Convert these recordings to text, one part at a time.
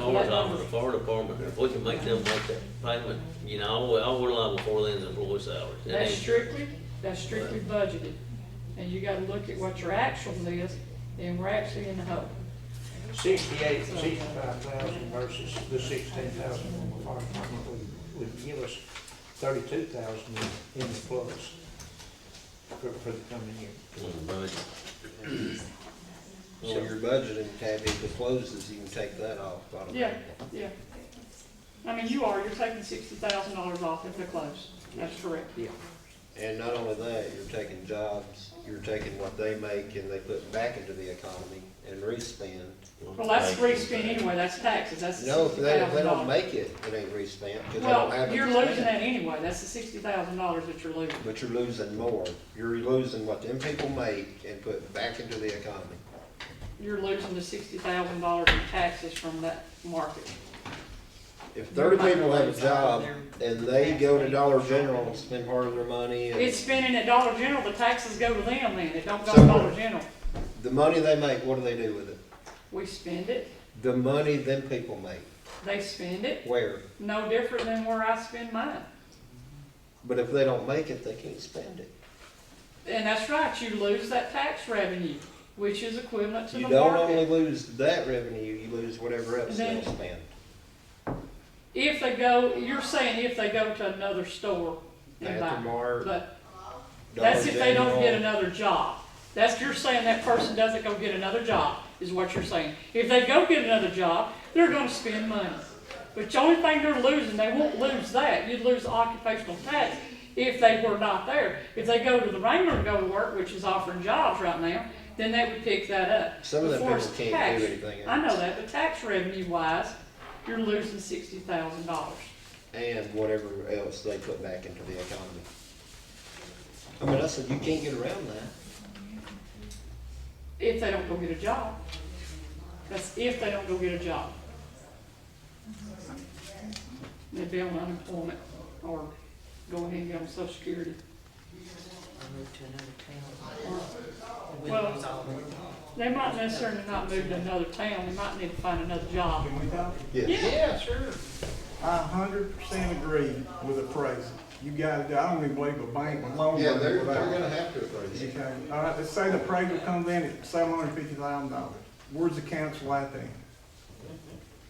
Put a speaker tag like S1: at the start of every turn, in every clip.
S1: hours off of the fire department, if we can make them make that payment, you know, all, we- all we're liable for then is employee salaries. It
S2: That's
S1: ain't-
S2: strictly, that's strictly budgeted. And you gotta look at what your actual is, then we're actually in the hole.
S3: Sixty-eight, sixty-five thousand versus the sixteen thousand from the fire department would, would give us thirty-two thousand in, in the plus for, for the coming year.
S1: on the budget.
S4: So your budgeting tab, if it closes, you can take that off. automatically.
S2: Yeah, yeah. I mean, you are, you're taking sixty thousand dollars off if they're close. That's correct.
S4: And not only that, you're taking jobs, you're taking what they make and they put back into the economy and respend.
S2: Well, that's free spend anyway, that's taxes, that's the
S4: No, if
S2: sixty
S4: they, if they
S2: thousand
S4: don't
S2: dollars.
S4: make it, it ain't respent, because they don't have
S2: Well,
S4: it.
S2: you're
S4: to
S2: losing
S4: spend.
S2: that anyway, that's the sixty thousand dollars that you're losing.
S4: But you're losing more. You're losing what them people make and put back into the economy.
S2: You're losing the sixty thousand dollars in taxes from that market.
S4: If thirty people have a job and they go to Dollar General and spend part of their money and
S2: It's spending at Dollar General, the taxes go to them then, it don't go to
S4: So-
S2: Dollar General.
S4: the money they make, what do they do with it?
S2: We spend it,
S4: The money them people make,
S2: they spend it,
S4: where?
S2: no different than where I spend mine.
S4: But if they don't make it, they can't spend it.
S2: And that's right, you lose that tax revenue, which is equivalent to the
S4: You don't only
S2: market.
S4: lose that revenue, you lose whatever else
S2: Then-
S4: they'll spend.
S2: If they go, you're saying if they go to another store and
S4: Bath and
S2: buy,
S4: Bar,
S2: but
S4: Dollar
S2: that's if they don't get
S4: General.
S2: another job. That's, you're saying that person doesn't go get another job, is what you're saying. If they go get another job, they're gonna spend money. But the only thing they're losing, they won't lose that, you'd lose occupational tax if they were not there. If they go to the Wrangler and go to work, which is offering jobs right now, then they would pick that up.
S4: Some of them
S2: Before
S4: people
S2: it's
S4: can't
S2: taxed.
S4: do anything
S2: I
S4: else.
S2: know that, but tax revenue wise, you're losing sixty thousand dollars.
S4: And whatever else they put back into the economy. I mean, I said, you can't get around that.
S2: If they don't go get a job. That's if they don't go get a job. They'd be on unemployment or go ahead and get on social security.
S5: or move to another town. And we
S2: Well-
S5: lose all of it.
S2: They might necessarily not move to another town, they might need to find another job.
S6: Can we talk?
S4: Yes.
S3: Yeah, sure.
S6: I hundred percent agree with appraisal. You gotta, do- I don't even believe a bank would loan money without.
S4: have to appraise it.
S6: Okay, all right, let's say the appraisal comes in at seven hundred fifty thousand dollars. Where's the council at then?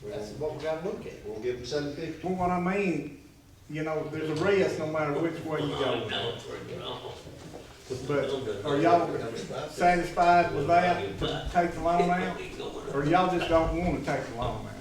S4: That's what we gotta look at. We'll give them seven fifty.
S6: Well, what I mean, you know, there's a risk no matter which way you
S1: No,
S6: go.
S1: it's pretty wrong.
S6: But are y'all satisfied with that, to take the loan out? Or y'all just don't wanna take the loan out?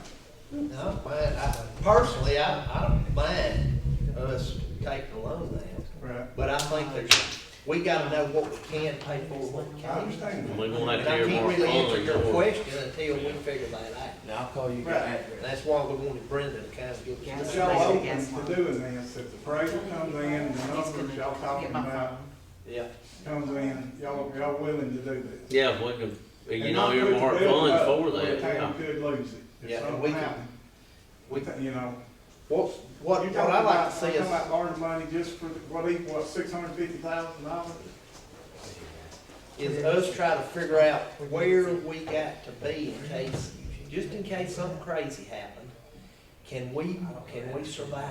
S7: No, I, I, personally, I, I don't mind us taking a loan out,
S6: Right,
S7: but I think there's, we gotta know what we can pay for, what we
S6: I
S7: can't.
S6: understand that.
S1: We're gonna
S7: And I
S1: have to hear
S7: can't
S1: more
S7: really answer
S1: funds
S7: your
S1: or.
S7: question until we figure that out.
S8: Now I'll call you
S6: Right.
S8: back.
S7: And that's why we wanted Brenda to kind of give
S6: But
S7: us.
S6: y'all open to doing this, if the appraisal comes in, the numbers y'all talking about
S7: Yeah.
S6: comes in, y'all, y'all willing to do this?
S1: Yeah, if we can, you
S6: And
S1: know,
S6: not
S1: your
S6: put
S1: mark
S6: the bill
S1: funds
S6: up
S1: for
S6: where
S1: that.
S6: the town
S1: yeah.
S6: could lose it,
S7: Yeah,
S6: if
S7: and
S6: something
S7: we can-
S6: happened,
S7: We,
S6: you know.
S7: what, what,
S6: You're
S7: what
S6: talking
S7: I like
S6: about,
S7: to see
S6: talking about
S7: is,
S6: borrowing money just for, the- what, equal, what, six hundred fifty thousand dollars?
S7: is us try to figure out where we got to be in case, just in case something crazy happened. Can we, can we survive?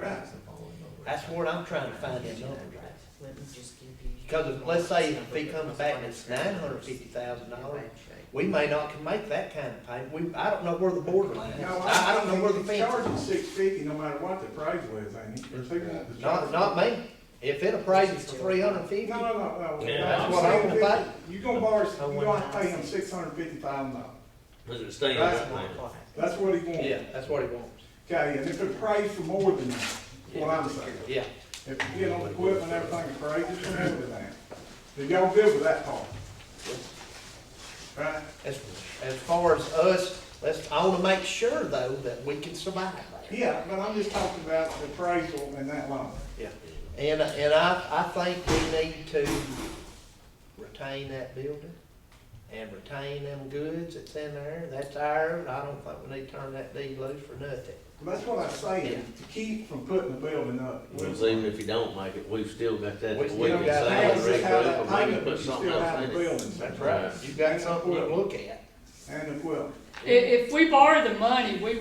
S6: Right.
S7: That's what I'm trying to find in numbers.
S5: Let me just give you.
S7: Because if, let's say if he comes back and it's nine hundred fifty thousand dollars, we may not can make that kind of payment. We, I don't know where the borderline is.
S6: No,
S7: I, I don't know where the fence
S6: Charging six fifty, no matter what the appraisal is, ain't it? If they want
S7: is.
S6: to
S7: Not,
S6: charge-
S7: not me. If it appraises to three hundred fifty,
S6: No, no, no, no.
S1: Yeah,
S7: that's what I'm about.
S6: You gonna borrow, you
S5: want
S6: gonna pay him
S5: houses.
S6: six hundred fifty thousand dollars.
S1: Look at the stand
S6: That's
S1: right now.
S6: That's what he wants.
S7: yeah, that's what he wants.
S6: Okay, and if it prays for more than that, is what I'm saying.
S7: Yeah.
S6: If, you know, equipment, everything prays, it's for more than that. Then y'all good with that part? Right?
S7: As, as far as us, let's, I wanna make sure though that we can survive.
S6: Yeah, but I'm just talking about the appraisal and that loan.
S7: Yeah. And, and I, I think we need to retain that building and retain them goods that's in there. That's ours. I don't think we need to turn that deed loose for nothing.
S6: That's what I'm saying, to keep from putting the building up.
S1: Because even if you don't make it, we've still got that, we
S7: We
S1: can
S7: still
S1: save
S7: got that.
S1: the
S6: That's just how
S1: rec
S6: that
S1: group or maybe
S6: payment, you
S1: put something
S6: still
S1: else
S6: have the
S1: in it.
S6: buildings.
S7: That's right. You got something to look at.
S6: And the equipment.
S2: If, if we borrow the money, we